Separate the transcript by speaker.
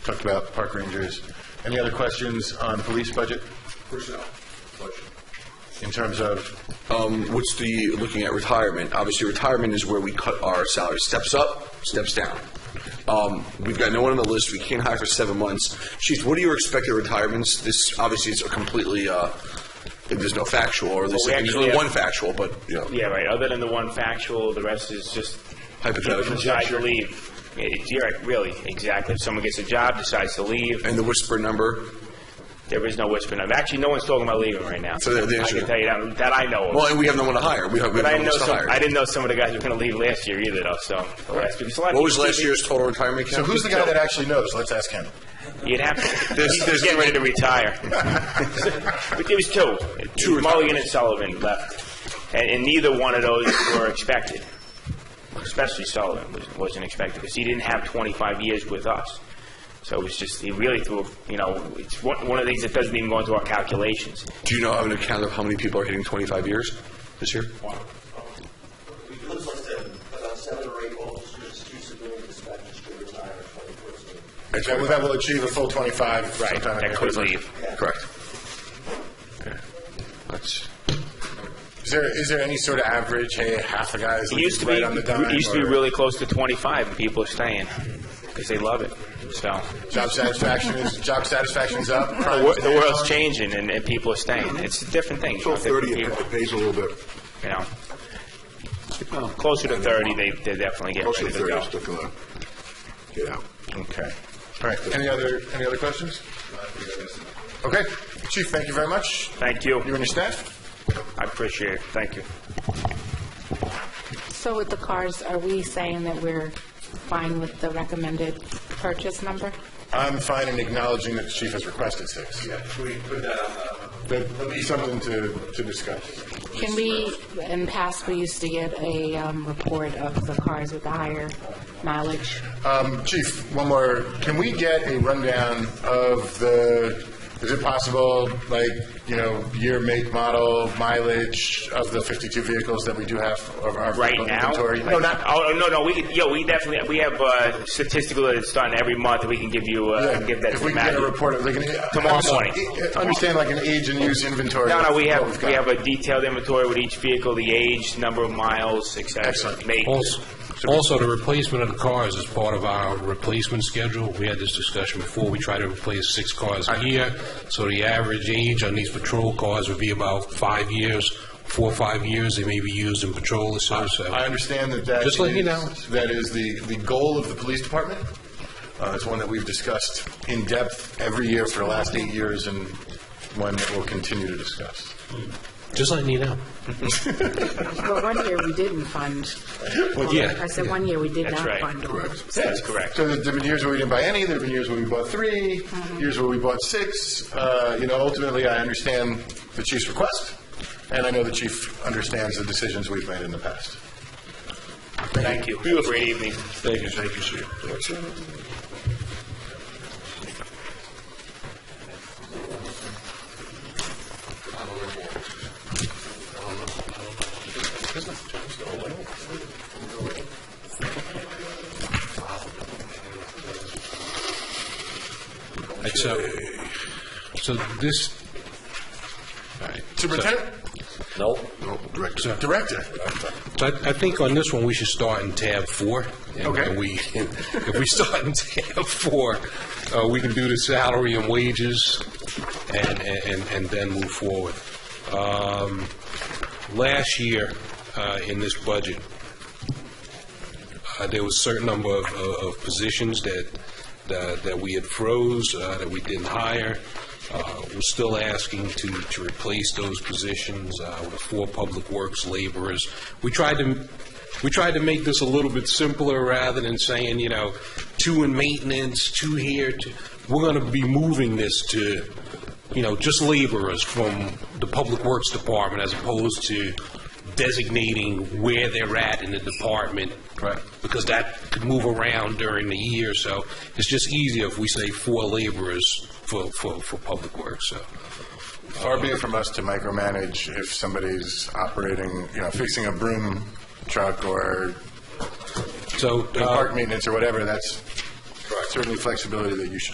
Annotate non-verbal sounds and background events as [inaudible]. Speaker 1: talked about, the park rangers. Any other questions on the police budget
Speaker 2: Personnel. Budget.
Speaker 1: in terms of,
Speaker 2: Um, what's the, looking at retirement, obviously retirement is where we cut our salary, steps up, steps down. Um, we've got no one on the list, we can't hire for seven months. Chief, what are your expected retirements? This, obviously, it's a completely, uh, there's no factual, or there's,
Speaker 3: Well, we
Speaker 2: there's
Speaker 3: actually
Speaker 2: only
Speaker 3: have-
Speaker 2: one factual, but, you know,
Speaker 3: Yeah, right. Other than the one factual, the rest is just
Speaker 2: Hypothetical.
Speaker 3: people Decide to leave. It- You're right, really, exactly. If someone gets a job, decides to leave,
Speaker 2: and the whisper number.
Speaker 3: there is no whispering. of- Actually, no one's talking about leaving right now.
Speaker 2: So the- the
Speaker 3: I
Speaker 2: answer-
Speaker 3: can tell you that, that I know of.
Speaker 2: Well, and we have no one to hire, we have, we
Speaker 3: But I
Speaker 2: have no
Speaker 3: know
Speaker 2: one to
Speaker 3: some, I
Speaker 2: hire.
Speaker 3: didn't know some of the guys were going to leave last year either, though. So that's because a lot of
Speaker 2: What was
Speaker 3: people-
Speaker 2: last year's total retirement
Speaker 1: so
Speaker 2: count?
Speaker 1: who's the guy that actually knows? Let's ask him.
Speaker 3: You'd have to.
Speaker 2: There's-
Speaker 3: he's
Speaker 2: there's-
Speaker 3: getting ready to retire. [laughs] but there was two.
Speaker 2: Two
Speaker 3: Mulligan
Speaker 2: retirements.
Speaker 3: and Sullivan left, and, and neither one of those were expected. Especially Sullivan was, wasn't expected because he didn't have 25 years with us. So it was just he really threw. a- You know, it's one, one of the things that doesn't even go into our calculations.
Speaker 2: Do you know, have an account of how many people are hitting twenty-five years this year?
Speaker 4: It looks like seven, about seven or eight officers, two civilian dispatchers to retire in 2014.
Speaker 1: That will- that will achieve a full 25 sometime in
Speaker 3: That could
Speaker 1: 2025.
Speaker 3: leave.
Speaker 2: Correct. Okay. That's,
Speaker 1: Is there, is there any sort of average, hey, half the guys
Speaker 3: It used to
Speaker 1: leave
Speaker 3: be.
Speaker 1: right on the dime?
Speaker 3: It used to be
Speaker 1: or
Speaker 3: really close to 25, and people are staying because they love it. So.
Speaker 1: Job satisfaction is, job satisfaction's up?
Speaker 3: The wor- the world's changing and, and people are staying. It's a different thing.
Speaker 5: Till 30, it
Speaker 3: People,
Speaker 5: it pays a little bit.
Speaker 3: you know, closer to 30, they, they definitely get
Speaker 5: Mostly
Speaker 3: ready to
Speaker 5: 30,
Speaker 3: go.
Speaker 5: it's still gonna get out.
Speaker 1: Okay. All right. Any other, any other questions? Okay. Chief, thank you very much.
Speaker 3: Thank
Speaker 1: You
Speaker 3: you.
Speaker 1: and your staff?
Speaker 3: I appreciate it. Thank you.
Speaker 6: So with the cars, are we saying that we're fine with the recommended purchase number?
Speaker 1: I'm fine in acknowledging that the chief has requested six.
Speaker 4: Yeah, should we put that on
Speaker 1: That'd be something to, to discuss.
Speaker 6: Can we, in the past, we used to get a um, report of the cars with the higher mileage.
Speaker 1: Um, Chief, one more, can we get a rundown of the, is it possible, like, you know, year, make, model, mileage of the 52 vehicles that we do have of our
Speaker 3: Right
Speaker 1: vehicle
Speaker 3: now?
Speaker 1: inventory? No, not,
Speaker 3: Oh, no, no, we, could- yo, we definitely, we have, uh, statistical that it's done every month. We can give you, uh, give that
Speaker 1: if
Speaker 3: to
Speaker 1: we can get a
Speaker 3: Matt.
Speaker 1: report, of, like, an-
Speaker 3: Tomorrow morning.
Speaker 1: I Understand, like, an age and use inventory.
Speaker 3: No, no, we
Speaker 1: What
Speaker 3: have, we
Speaker 1: got.
Speaker 3: have a detailed inventory with each vehicle, the age, number of miles, et cetera.
Speaker 1: Excellent.
Speaker 3: make.
Speaker 7: Also, also, the replacement of the cars is part of our replacement schedule. We had this discussion before. We try to replace six cars a year, so the average age on these patrol cars would be about five years, four or five years. They may be used in patrol or so, so.
Speaker 1: I understand that that
Speaker 7: Just letting you
Speaker 1: is-
Speaker 7: know.
Speaker 1: That is the, the goal of the police department. Uh, it's one that we've discussed in depth every year for the last eight years and one that we'll continue to discuss.
Speaker 7: Just letting you know.
Speaker 6: But one year, we didn't fund.
Speaker 7: yeah.
Speaker 6: I said one year, we did
Speaker 3: That's
Speaker 6: not
Speaker 3: right.
Speaker 6: fund.
Speaker 3: That's correct.
Speaker 1: So there's been years where we didn't buy any, there've been years where we bought three, years where we bought six. Uh, you know, ultimately, I understand the chief's request, and I know the chief understands the decisions we've made in the past.
Speaker 3: Thank you. Great evening.
Speaker 2: thank you, thank you, sir.
Speaker 7: Right, So, so this, all right.
Speaker 1: Superintendent,
Speaker 5: No, director.
Speaker 7: So-
Speaker 1: director,
Speaker 7: So I, I think on this one, we should start in tab four. And-
Speaker 1: Okay.
Speaker 7: And we, [laughs] if we start in tab four, uh, we can do the salary and wages and, and, and then move forward. Um, last year, uh, in this budget, uh, there was a certain number of, of of positions that, that that we had froze, uh, that we didn't hire. Uh, We're still asking to, to replace those positions uh, with four public works laborers. We tried to, we tried to make this a little bit simpler rather than saying, you know, two in maintenance, two here, two, we're going to be moving this to, you know, just laborers from the Public Works Department as opposed to designating where they're at in the department. Right. Because that could move around during the year, so it's just easier if we say four laborers for, for, for Public Works, so.
Speaker 1: far be it from us to micromanage if somebody's operating, you know, fixing a broom truck or
Speaker 7: So,
Speaker 1: doing
Speaker 7: uh,
Speaker 1: park maintenance or whatever, that's certainly flexibility that you should